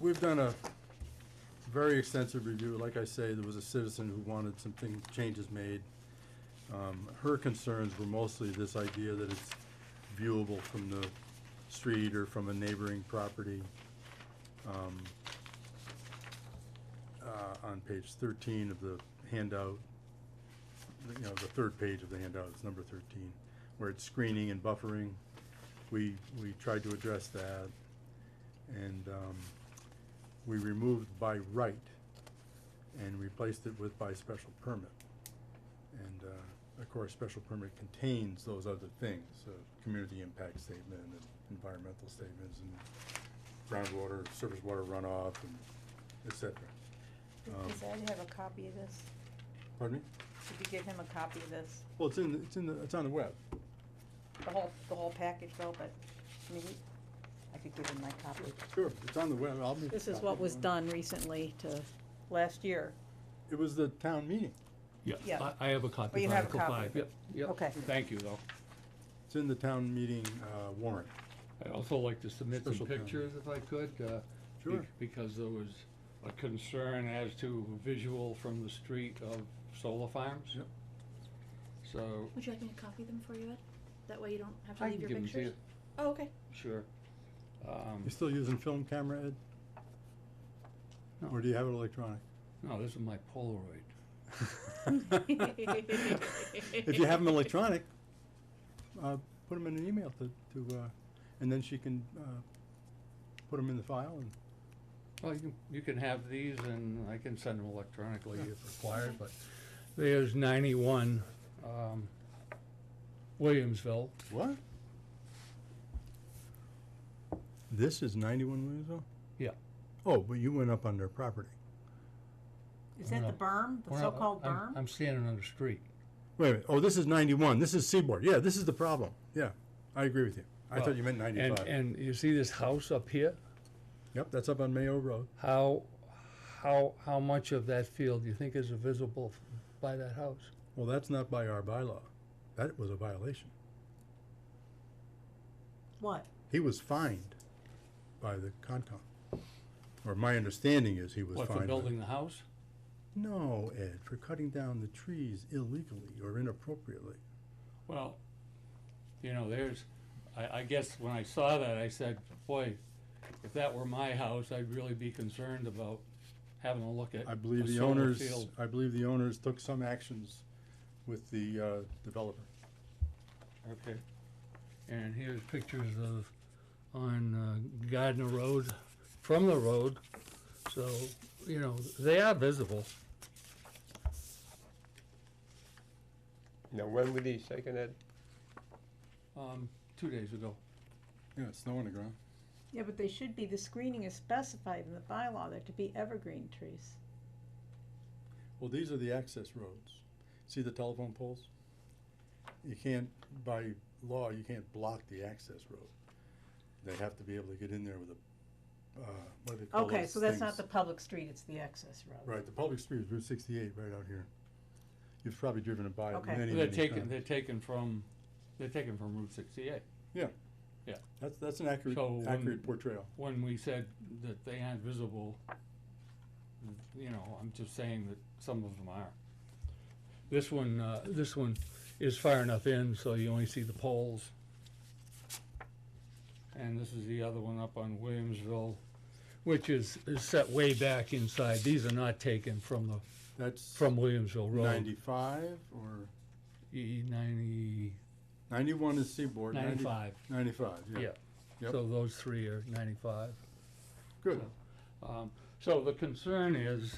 We've done a very extensive review. Like I say, there was a citizen who wanted some thing, changes made. Um, her concerns were mostly this idea that it's viewable from the street or from a neighboring property. Um, uh, on page thirteen of the handout, the- you know, the third page of the handout, it's number thirteen, where it's screening and buffering. We, we tried to address that. And, um, we removed by right and replaced it with by special permit. And, uh, of course, special permit contains those other things, uh, community impact statement and environmental statements and groundwater, surface water runoff and et cetera. Um, Does Ed have a copy of this? Pardon me? Should we give him a copy of this? Well, it's in, the- it's in the, it's on the web. The whole, the whole package though, but, I mean, he- I could give him my copy. Sure, it's on the web, I'll make. a This is copy what if was you want. done recently to, Last year, It was the town meeting. Yeah. I, I have a copy you of have a Article copy Five. of it. Yep, Okay. yep. Thank you, though. It's in the town meeting, uh, warrant. I'd also like to submit some Special permit. pictures if I could. uh, be- Sure. Because there was a concern as to visual from the street of solar farms. Yep. So. Would you like me to copy them for you, Ed? That way you don't have to I can leave your give 'em to pictures. Oh, okay. you, Sure. Um, You still using film camera, Ed? No. Or do you have it electronic? No, this is my Polaroid. If you have them electronic, uh, put them in an email to, to, uh, and then she can, uh, put them in the file and. Well, you can, you can have these and I can send them electronically Yeah. if required, but there's ninety-one, um, Williamsville. What? This is ninety-one Williamsville? Yeah. Oh, but you went up on their property. is that the No. berm, the Well, so-called I'm- berm? I'm standing on the street. Wait a minute, oh, this is ninety-one, this is Seaboard, yeah, this is the problem, yeah, I agree with you. I Well, thought you meant And, ninety-five. and you see this house up here? Yep, that's up on Mayo Road. How, how, how much of that field do you think is visible by that house? Well, that's not by our bylaw. That was a violation. What? He was fined by the Concom. Or my understanding is he was What, fined. by- for building the house? No, Ed, for cutting down the trees illegally or inappropriately. Well, you know, there's, I, I guess when I saw that, I said, boy, if that were my house, I'd really be concerned about having a look at I believe a the solar owners, field. I believe the owners took some actions with the, uh, developer. Okay. And here's pictures of, on uh, Gardner Road, from the road, so, you know, they are visible. Now, when were these taken, Ed? Um, two days ago. Yeah, snow on the ground. yeah, but they should be, the screening is specified in the bylaw, they're to be evergreen trees. Well, these are the access roads. See the telephone poles? You can't, by law, you can't block the access road. They have to be able to get in there with a, uh, what do they call Okay, those so that's not the things? public street, it's the access road. Right, the public street is Route sixty-eight right out here. You've probably driven it by it Okay. many, They're many taken, times. they're taken from, they're taken from Route sixty-eight. That's, that's an accurate, So when- accurate portrayal. When we said that they aren't visible, you know, I'm just saying that some of them are. This one, uh, this one is far enough in, so you only see the poles. And this is the other one up on Williamsville, which is, is set way back inside. These are not taken from the, That's from Williamsville Road. ninety-five or, E ninety, ninety-one is Seaboard. 90 ninety-five, Ninety-five, yeah. yeah. Yep. So those three are ninety-five. Good. Um, So the concern is,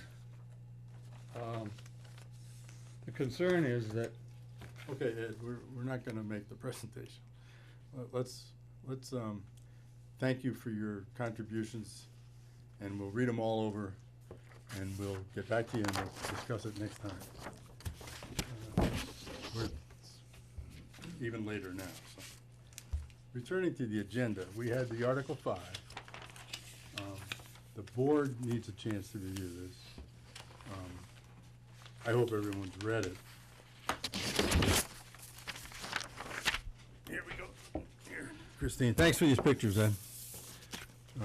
um, the concern is that, Okay, Ed, we're, we're not gonna make the presentation. Let- Let's, let's, um, thank you for your contributions, and we'll read them all over, and we'll get back to you and we'll discuss it next time. Uh, We're even later now, so. Returning to the agenda, we had the Article Five. Um, The board needs a chance to review this. Um, I hope everyone's read it. Here we go. Here. Christine, thanks for these pictures, Ed.